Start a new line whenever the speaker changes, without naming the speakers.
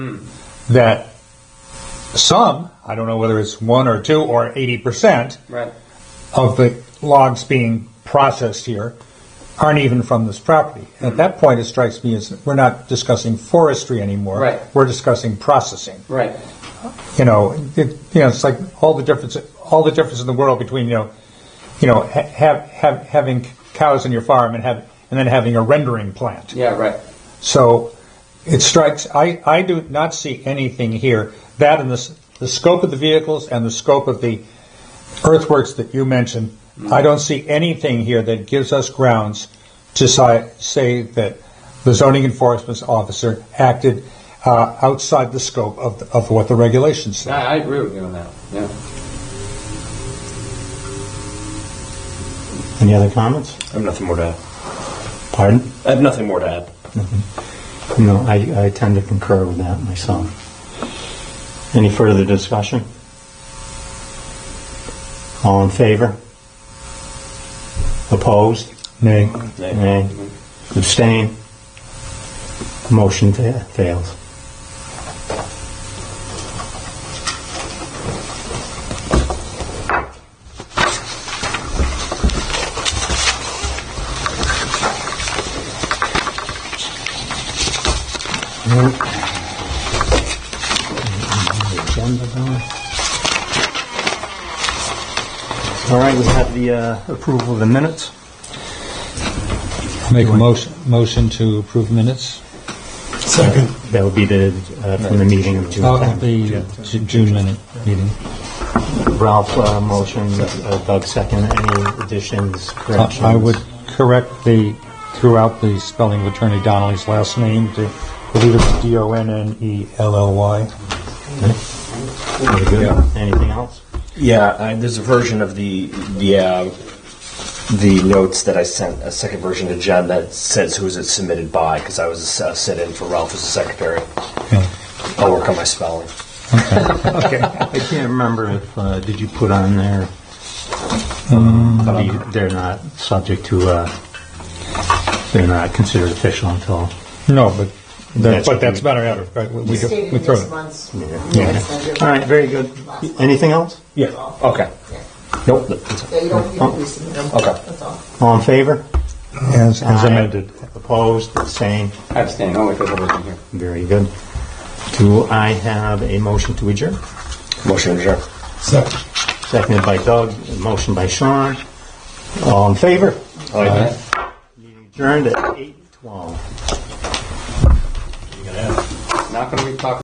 that some, I don't know whether it's one or two or 80%
Right.
of the logs being processed here aren't even from this property. At that point, it strikes me as we're not discussing forestry anymore.
Right.
We're discussing processing.
Right.
You know, it, you know, it's like all the difference, all the difference in the world between you know, you know, ha- have, have having cows in your farm and have and then having a rendering plant.
Yeah. Right.
So it strikes, I, I do not see anything here, that and the, s- the scope of the vehicles and the scope of the earthworks that you mentioned, I don't see anything here that gives us grounds to si- say that the zoning enforcement officer acted uh, outside the scope of, the- of what the regulations say.
I, I agree with you on that. Yeah.
Any other comments?
I have nothing more to add.
Pardon?
I have nothing more to add.
No, I, I tend to concur with that myself. Any further discussion? All in favor? Opposed? Nay.
Nay.
Nay. Abstain? Motion fa- fails. Agenda done. All right, we have the uh, approval of the minutes.
Make a motion, motion to approve minutes
Second. That would be the, uh, from the meeting of June
of
10th.
the June minute meeting.
Ralph, uh, motion, uh, Doug, second. Any additions, corrections?
I would correct the, throughout the spelling of Attorney Donnelly's last name to, I believe it's E D-O-N-N-E-L-L-Y.
Very good. Anything else?
Yeah, I, there's a version of the the uh, the notes that I sent a second version to Jen that says who is it submitted by because I was a sit in for Ralph as a secretary. I'll work on my spelling.
Okay. I can't remember if, uh, did you put on there, the- they're not subject to, uh, they're not considered official until,
No, but, that-
That's-
but that's better, out of- right, we- we go-
Stated
we
in
throw
this
it.
month's.
yeah. All right, very good. Anything else?
Yeah. Okay. Nope. that's it.
Yeah, you don't, you
Oh.
don't resubmit them.
Okay.
That's all.
All in favor?
As as amended.
Opposed, abstained,
I abstain only because I wasn't here.
very good. Do I have a motion to adjourn?
Motion to adjourn.
Seconded by Doug, motion by Sean. All in favor?
Aye.
Meeting adjourned at 8:12.
Not going to be talking.